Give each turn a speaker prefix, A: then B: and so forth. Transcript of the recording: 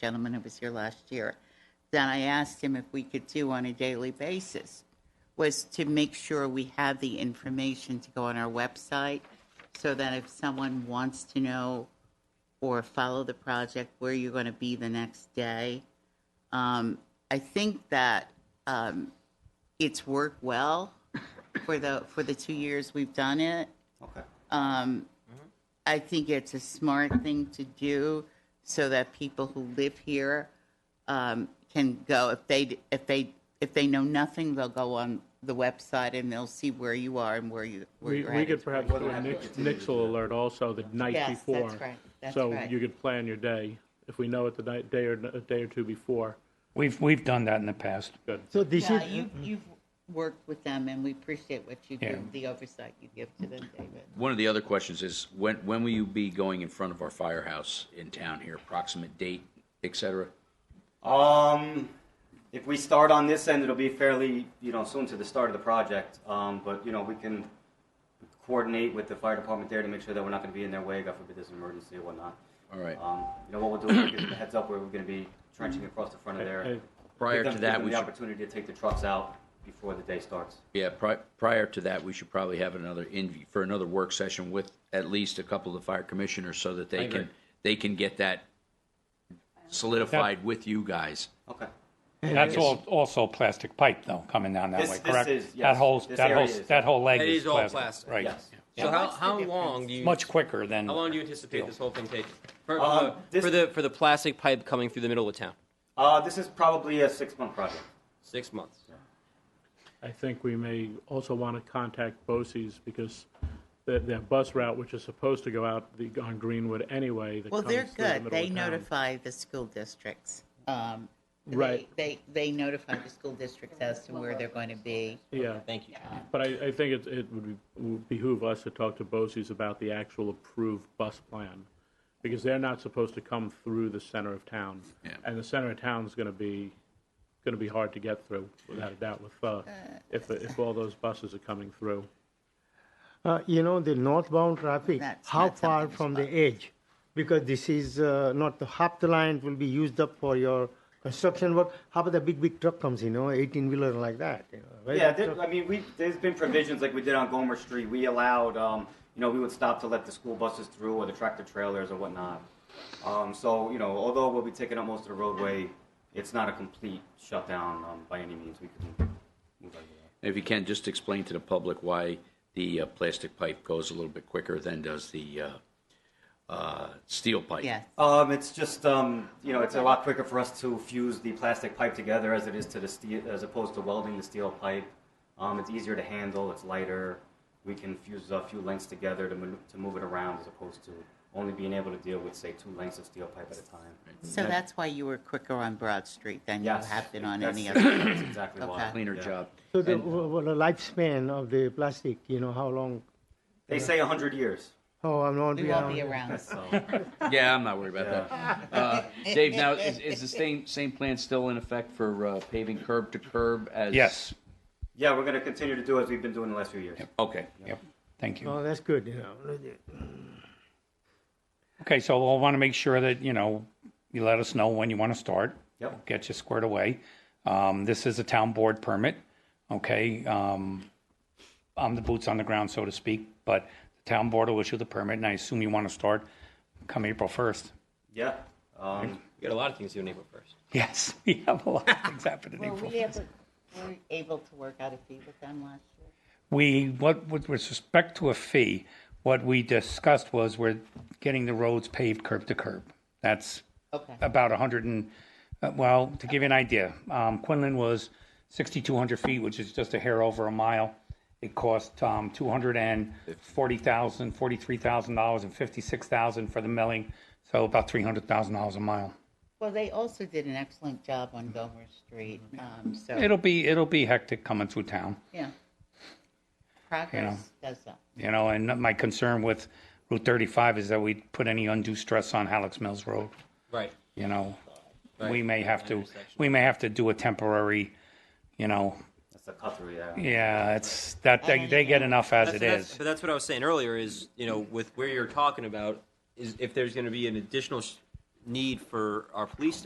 A: gentleman who was here last year, that I asked him if we could do on a daily basis, was to make sure we have the information to go on our website so that if someone wants to know or follow the project, where you're going to be the next day. Um, I think that um, it's worked well for the, for the two years we've done it.
B: Okay.
A: Um, I think it's a smart thing to do so that people who live here um, can go. If they if they if they know nothing, they'll go on the website and they'll see where you are and where you where
C: We,
A: you're
C: we
A: at.
C: could perhaps do a Nix- Nixle alert also the night
A: Yes,
C: before.
A: that's right, that's
C: So
A: right.
C: you could plan your day, if we know it the night, day or, a day or two before.
D: We've, we've done that in the past.
C: Good.
E: So this
A: Yeah,
E: is,
A: you, you've worked with them, and we appreciate what you do,
D: Yeah.
A: the oversight you give to them, David.
F: One of the other questions is, when, when will you be going in front of our firehouse in town here, approximate date, et cetera?
B: Um, if we start on this end, it'll be fairly, you know, soon to the start of the project. Um, but you know, we can coordinate with the fire department there to make sure that we're not going to be in their way. God forbid there's an emergency or whatnot.
F: All right.
B: Um, you know what we'll do is we'll give them a heads up where we're going to be trenching across the front of there.
C: Hey,
B: Give
F: Prior
B: them-
F: to
B: give
F: that,
B: them
F: we
B: the
F: should,
B: opportunity to take the trucks out before the day starts.
F: yeah, pri- prior to that, we should probably have another in, for another work session with at least a couple of the fire commissioners so that they can, they can get that solidified with you guys.
B: Okay.
D: That's all, also plastic pipe though, coming down that
B: This-
D: way,
B: this
D: correct?
B: is,
D: That
B: yes.
D: whole,
B: This
D: that whole,
B: area is-
D: that whole leg
G: That
D: is
G: is all
D: plastic,
G: plastic,
D: right?
B: Yes.
G: So how,
A: What's the
G: how
A: difference?
G: long do you
D: Much quicker than.
G: how long do you anticipate this whole thing taking for,
B: Um,
G: for the-
B: this-
G: for the for the plastic pipe coming through the middle of town?
B: Uh, this is probably a six-month project.
G: Six months.
C: I think we may also want to contact Bosse's because their, their bus route, which is supposed to go out the, on Greenwood anyway, that
A: Well,
C: comes
A: they're
C: through the
A: good.
C: middle
A: They
C: of town.
A: notify the school districts. Um, they-
C: Right.
A: They, they notify the school districts as to where they're going to be.
C: Yeah.
G: Thank you.
C: But I, I think it, it would be- would behoove us to talk to Bosse's about the actual approved bus plan, because they're not supposed to come through the center of town.
F: Yeah.
C: And the center of town's gonna be, gonna be hard to get through, without a doubt, with, uh, if, if all those buses are coming through.
E: uh, you know, the northbound traffic,
A: That's
E: how
A: not
E: far
A: something
E: from
A: that's
E: the edge? Because this is uh, not the half the line will be used up for your construction work. How about the big, big truck comes, you know, 18 wheeler like that? you know, very
B: Yeah,
E: big
B: there,
E: truck.
B: I mean, we, there's been provisions like we did on Gomer Street. We allowed, um, you know, we would stop to let the school buses through or the tractor trailers or whatnot. Um, so, you know, although we'll be taking up most of the roadway, it's not a complete shutdown um, by any means. We can move over that.
F: If you can, just explain to the public why the uh, plastic pipe goes a little bit quicker than does the uh, uh, steel pipe.
A: Yes.
B: Um, it's just, um, you know, it's a lot quicker for us to fuse the plastic pipe together as it is to the steel, as opposed to welding the steel pipe. Um, it's easier to handle, it's lighter. We can fuse a few lengths together to, manu- to move it around as opposed to only being able to deal with, say, two lengths of steel pipe at a time.
A: So that's why you were quicker on Broad Street than you
B: Yes.
A: have been on any
B: that's-
A: other.
B: That's exactly why.
A: Okay.
F: Cleaner
B: yeah.
F: job.
E: So the, what the lifespan of the plastic, you know, how long?
B: They say 100 years.
E: Oh, I'm not.
A: We won't be around.
B: So,
F: Yeah, I'm not worried about that. Uh,
B: yeah.
F: Dave, now is, is the same same plan still in effect for uh, paving curb to curb as?
D: Yes,
B: yeah, we're going to continue to do as we've been doing the last few years.
F: Okay.
D: yep, thank you.
E: Oh, that's good, you know.
D: Okay, so we'll want to make sure that, you know, you let us know when you want to start.
B: Yep.
D: We'll Get you squared away. Um, this is a town board permit, okay? Um, I'm the boots on the ground, so to speak, but the town board will issue the permit, and I assume you want to start come April 1st.
B: Yeah. Um,
G: You got a lot of things to do in April first.
D: Yes, we have a lot of things happening in
A: Were
D: April.
A: we able, were we able to work out a fee with them last year?
D: We, what, with respect to a fee, what we discussed was we're getting the roads paved curb to curb. That's
A: Okay.
D: about 100 and, uh, well, to give you an idea, um, Quinlan was 6,200 feet, which is just a hair over a mile. It cost um, 240,000, $43,000 and 56,000 for the milling, so about $300,000 a mile.
A: Well, they also did an excellent job on Gomer Street, um, so,
D: It'll be, it'll be hectic coming through town.
A: yeah. Progress does that.
D: You know, and my concern with Route 35 is that we put any undue stress on Halleck's Mills Road.
G: Right.
D: You know, we
G: Right.
D: may have to,
G: Intersection.
D: we may have to do a temporary, you know,
B: that's a cut through, yeah.
D: yeah, it's that they, they get enough as
G: That's,
D: it
G: that's-
D: is.
G: But that's what I was saying earlier. Is you know with where you're talking about is if there's going to be an additional sh- need for our police